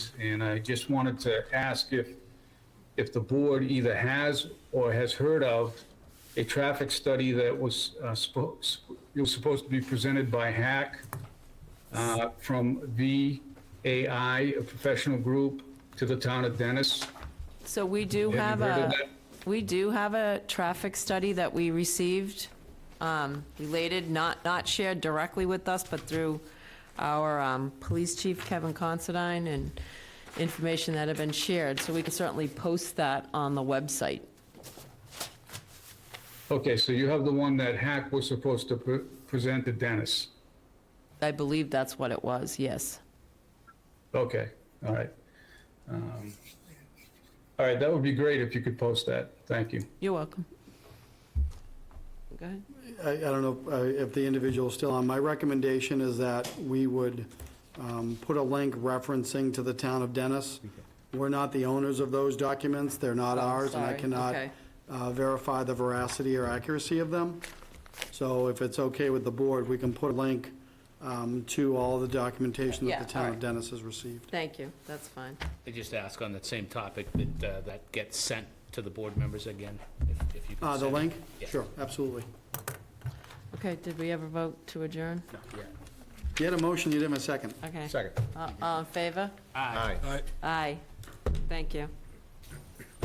And I just wanted to ask if, if the board either has or has heard of a traffic study that was, uh, spo- sp- it was supposed to be presented by Hack uh, from VAI, a professional group, to the town of Dennis. So we do Have have you heard of a, that? we do have a traffic study that we received, um, related, not, not shared directly with us, but through our, um, police chief, Kevin Considine, and information that have been shared, so we can certainly post that on the website. Okay, so you have the one that Hack was supposed to pre- present to Dennis. I believe that's what it was, yes. Okay, all right. Um, All right, that would be great if you could post that. Thank you. You're welcome. Go ahead. I, I don't know uh, if the individual is still on. My recommendation is that we would um, put a link referencing to the town of Dennis. We're not the owners of those documents, they're not Oh, ours, and I sorry. cannot Okay. uh, verify the veracity or accuracy of them. So if it's okay with the board, we can put a link um, to all the documentation Yeah, that the all town of right. Dennis has received. Thank you, that's fine. I just ask on that same topic that uh, that gets sent to the board members again, if- if you could Uh, The send it. link? Yeah. Sure, absolutely. Okay, did we ever vote to adjourn? No, yeah. You had a Uh, motion, you didn't have a second. Okay. Second. All- All in favor? Aye. Aye. Thank you.